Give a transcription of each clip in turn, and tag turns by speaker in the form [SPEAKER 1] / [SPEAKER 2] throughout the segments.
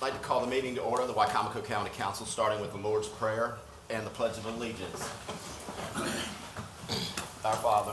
[SPEAKER 1] like to call the meeting to order of the Wycomico County Council, starting with the Lord's Prayer and the Pledge of Allegiance. Our Father,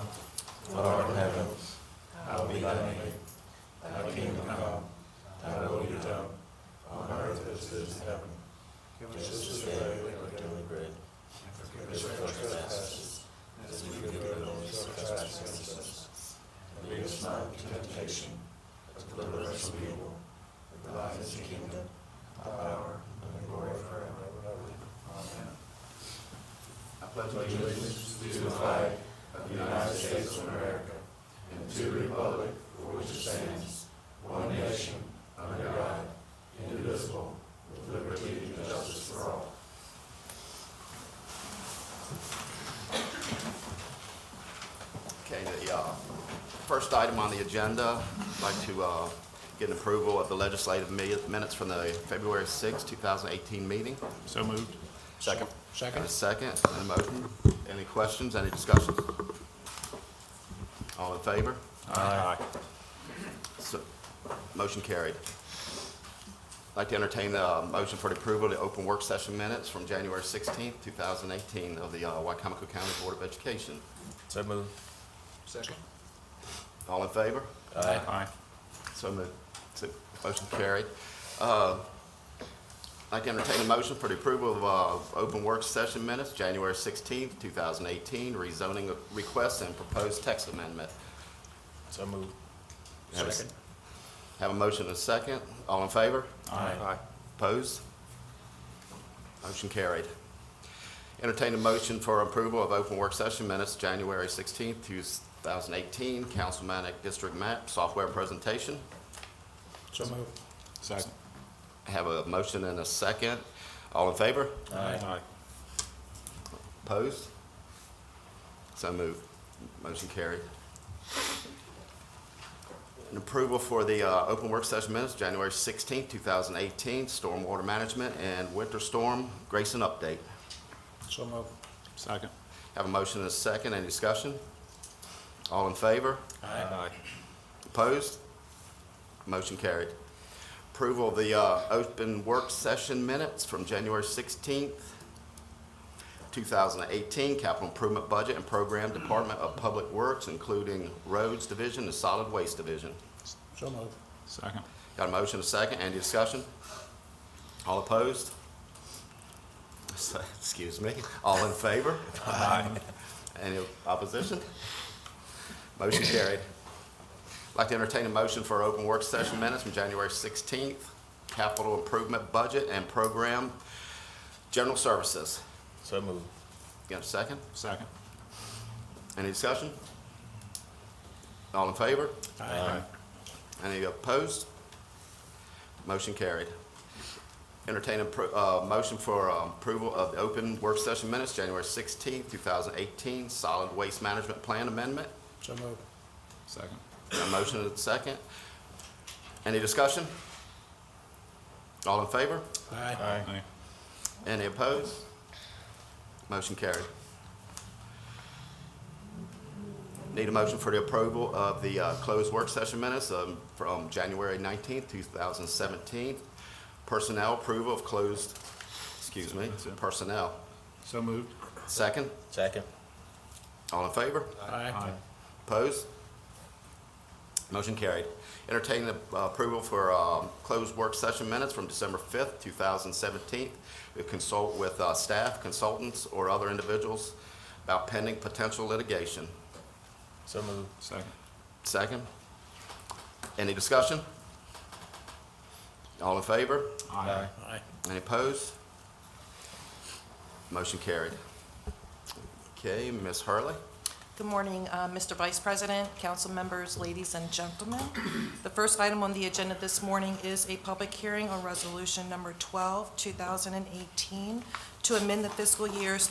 [SPEAKER 1] Okay, the uh, first item on the agenda, I'd like to uh, get an approval of the legislative mi- minutes from the February 6, 2018 meeting.
[SPEAKER 2] So moved.
[SPEAKER 1] Second.
[SPEAKER 2] Second.
[SPEAKER 1] And a second, and a motion. Any questions, any discussion? All in favor?
[SPEAKER 2] Aye.
[SPEAKER 1] So, motion carried. I'd like to entertain the uh, motion for the approval of the open work session minutes from January 16, 2018 of the uh, Wycomico County Board of Education.
[SPEAKER 3] So moved.
[SPEAKER 2] Second.
[SPEAKER 1] All in favor?
[SPEAKER 3] Aye.
[SPEAKER 2] Aye.
[SPEAKER 1] So moved. So, Motion carried. Uh, I'd like to entertain a motion for the approval of uh, open work session minutes, January 16, 2018, rezoning request and proposed text amendment.
[SPEAKER 3] So moved.
[SPEAKER 1] Have a- Have a motion and a second. All in favor?
[SPEAKER 3] Aye.
[SPEAKER 1] Opposed? Motion carried. Entertain a motion for approval of open work session minutes, January 16, 2018, Councilmanic District Map Software Presentation.
[SPEAKER 3] So moved.
[SPEAKER 2] Second.
[SPEAKER 1] Have a motion and a second. All in favor?
[SPEAKER 3] Aye.
[SPEAKER 1] Opposed? So moved. Motion carried. An approval for the uh, open work session minutes, January 16, 2018, stormwater management and winter storm Grayson update.
[SPEAKER 3] So moved.
[SPEAKER 2] Second.
[SPEAKER 1] Have a motion and a second. Any discussion? All in favor?
[SPEAKER 3] Aye.
[SPEAKER 1] Opposed? Motion carried. Approval of the uh, open work session minutes from January 16th, 2018, capital improvement budget and program Department of Public Works, including Roads Division and Solid Waste Division.
[SPEAKER 3] So moved.
[SPEAKER 2] Second.
[SPEAKER 1] Got a motion, a second, any discussion? All opposed? Excuse me, all in favor? Aye. Any opposition? Motion carried. Like to entertain a motion for open work session minutes from January 16th, capital improvement budget and program, general services.
[SPEAKER 3] So moved.
[SPEAKER 1] Got a second?
[SPEAKER 2] Second.
[SPEAKER 1] Any discussion? All in favor?
[SPEAKER 3] Aye.
[SPEAKER 1] Any opposed? Motion carried. Entertain a pro- uh, motion for um, approval of the open work session minutes, January 16, 2018, solid waste management plan amendment.
[SPEAKER 3] So moved.
[SPEAKER 2] Second.
[SPEAKER 1] A motion and a second. Any discussion? All in favor?
[SPEAKER 3] Aye.
[SPEAKER 2] Aye.
[SPEAKER 1] Any opposed? Motion carried. Need a motion for the approval of the uh, closed work session minutes um, from January 19th, 2017. Personnel approval of closed, excuse me, personnel.
[SPEAKER 2] So moved.
[SPEAKER 1] Second,
[SPEAKER 3] Second.
[SPEAKER 1] all in favor?
[SPEAKER 3] Aye.
[SPEAKER 1] Opposed? Motion carried. Entertain the uh, approval for um, closed work session minutes from December 5th, 2017. We consult with uh, staff, consultants, or other individuals about pending potential litigation.
[SPEAKER 3] So moved.
[SPEAKER 2] Second.
[SPEAKER 1] Second. Any discussion? All in favor?
[SPEAKER 2] Aye.
[SPEAKER 3] Aye.
[SPEAKER 1] Any opposed? Motion carried. Okay, Ms. Hurley?
[SPEAKER 4] Good morning, uh, Mr. Vice President, council members, ladies and gentlemen. The first item on the agenda this morning is a public hearing on Resolution Number 12, 2018, to amend the fiscal years